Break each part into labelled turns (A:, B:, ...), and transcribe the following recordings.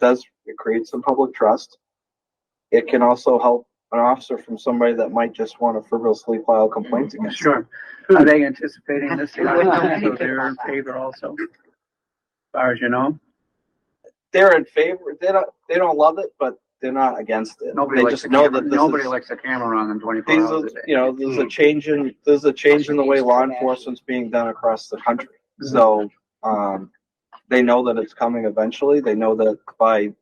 A: does, it creates some public trust. It can also help an officer from somebody that might just want to frivolously file complaints
B: Mm-hmm.
A: against. them.
B: Sure. Are they anticipating this? So
C: Absolutely.
B: they're in favor also, as far as you know?
A: They're in favor, they don't, they don't love it, but they're not against it.
B: Nobody
A: They
B: likes
A: just
B: a
A: know
B: camera,
A: that this
B: nobody
A: is-
B: likes a camera on them twenty-four
A: These are,
B: hours a day.
A: you know, there's
B: Mm-hmm.
A: a change in, there's a change in the way law enforcement's being done across the country.
B: Mm-hmm.
A: So, um, they know that it's coming eventually. They know that by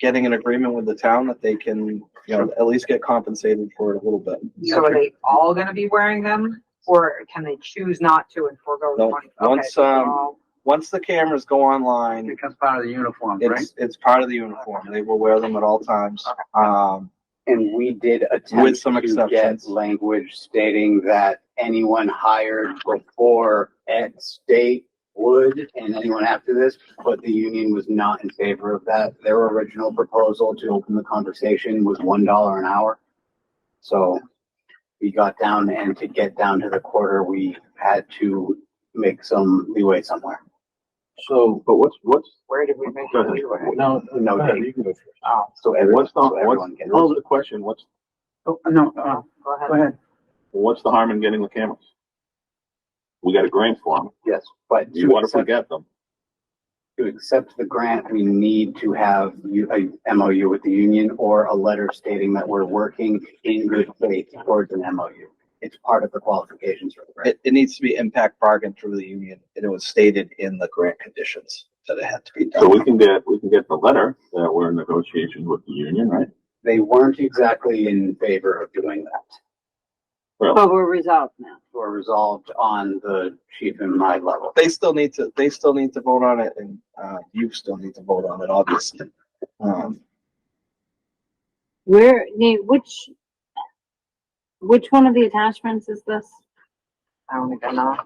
A: getting an agreement with the town that they can, you know, at least get compensated for it a little bit.
C: So are they all gonna be wearing them, or can they choose not to and forego the
A: No,
C: money? Okay,
A: once,
C: so they're
A: um,
C: all-
A: Once the cameras go
B: It
A: online,
B: becomes part of the uniform, right?
A: it's, it's part of the uniform. They will wear them at all times. Um,
D: And we did
A: With
D: attempt
A: some
D: to get
A: exceptions.
D: language stating that anyone hired before X date would, and anyone after this, but the union was not in favor of that. Their original proposal to open the conversation was one dollar an hour. So we got down and to get down to the quarter, we had to make some leeway somewhere.
E: So, but what's, what's,
C: Where did we make?
E: go ahead.
C: the leeway?
E: No,
D: No,
E: go ahead,
D: Dave. Ah,
E: you can go first.
D: So everyone,
E: What's the,
D: so everyone
E: what's,
D: gets.
E: hold the question, what's,
B: Oh, no, uh,
C: Go
B: go
C: ahead.
B: ahead.
E: what's the harm in getting the cameras? We got a grant for them.
D: Yes, but.
E: You
D: to
E: want to
D: accept-
E: forget them.
D: To accept the grant, we need to have you- a MOU with the union or a letter stating that we're working in good faith towards an MOU. It's part of the qualifications for the grant.
A: it, it needs to be impact bargained through the union and it was stated in the grant conditions that it had to be
E: So
A: done.
E: we can get, we can get the letter that we're in negotiations with the union, right?
D: They weren't exactly in favor of doing that.
F: But we're resolved now.
D: Were resolved on the chief and my level.
A: they still need to they still need to vote on it and uh you still need to vote on it obviously um
F: Where, Nate, which, which one of the attachments is this?
C: I don't think I know.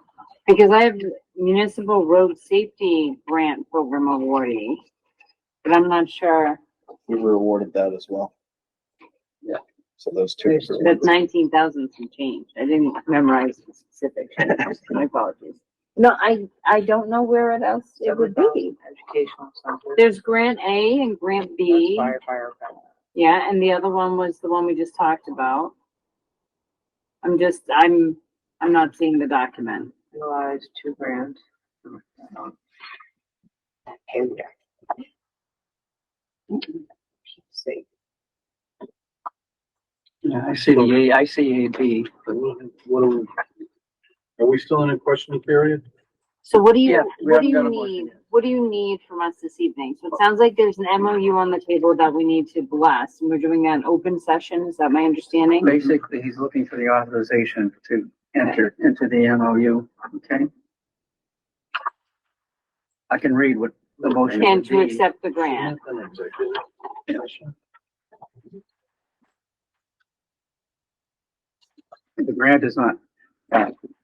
F: Because I have municipal road safety grant program awardee, but I'm not sure,
A: we were awarded that as well
D: Yeah.
A: so those two
F: There's- that's nineteen thousand some change. I didn't memorize the specifics. My apologies. No, I, I don't know where it else it would be.
C: Educational center.
F: There's grant A and grant B.
C: That's Firefighter. grant.
F: Yeah, and the other one was the one we just talked about. I'm just, I'm, I'm not seeing the document.
C: Realized two grand. Hey there. See.
B: Yeah, I see the A, I see A B.
G: What are we, are we still in a questioning period?
F: So what do
B: Yeah,
F: you,
B: we
F: what do
B: haven't
F: you
B: got a motion
F: need, what do you need from us this evening? So it sounds like there's an MOU on the table that we need to bless, and we're doing an open session, is that my understanding?
B: Basically, he's looking for the authorization to enter into the MOU, okay? I can read what the motion would
F: And to
B: be.
F: accept the grant.
B: The grant is not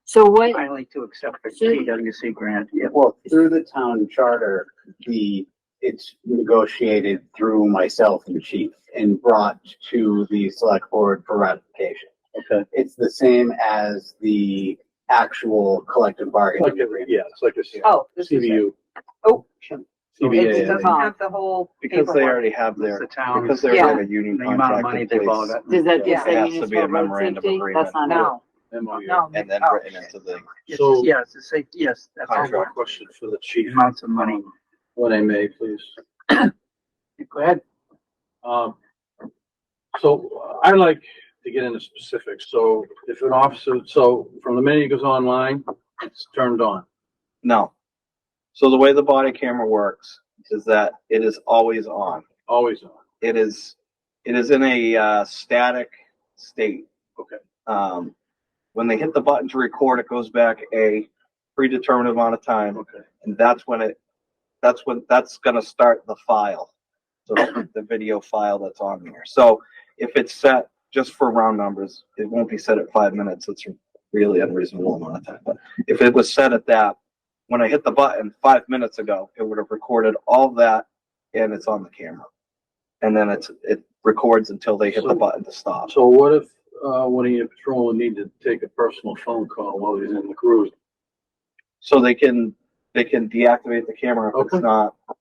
F: So what,
B: finally to accept the TWC grant. Yeah,
D: Well, through the town charter, the, it's negotiated through myself and chief and brought to the select board for ratification.
G: Okay.
D: It's the same as the actual collective bargaining agreement.
G: Yeah, it's like a
C: Oh, this is it.
G: CVU.
C: Oh. It
G: CVA.
C: doesn't have the whole
A: because they
C: paperwork.
A: already have
B: it's
A: their
B: the town,
A: because they're
C: Yeah.
A: in a union
B: the amount
A: contract
B: of money
A: in
B: they've all
A: place
B: got.
F: does that
C: Yeah.
F: just say
A: It has to be a
F: municipal road
A: memorandum
F: safety?
A: agreement.
F: That's not it.
C: No,
G: MOU.
C: no.
A: and then
C: oh,
A: written into the
B: It's-
G: So-
B: Yes, it's safe, yes, that's
G: I have a
A: Contract.
G: question for the
B: the
G: chief,
B: amounts of money.
G: when I may, please.
B: Go ahead.
G: Um, so I like to get into specifics. So if an officer, so from the minute he goes online, it's turned on.
A: no so the way the body camera works is that it is always on
G: Always on.
A: it is it is in a uh, static state.
G: Okay.
A: Um, when they hit the button to record, it goes back a predetermined amount of time,
G: Okay.
A: and that's when it that's when that's gonna start the file, so the video file that's on there. So if it's set just for round numbers, it won't be set at five minutes. It's a really unreasonable amount of time. But if it was set at that, when I hit the button five minutes ago, it would have recorded all that, and it's on the camera and then it's it records until they hit the
G: So-
A: button to stop.
G: So what if, uh, one of your patrolmen need to take a personal phone call while he's in the cruise?
A: So they can they can deactivate the camera if
G: Okay.
A: it's not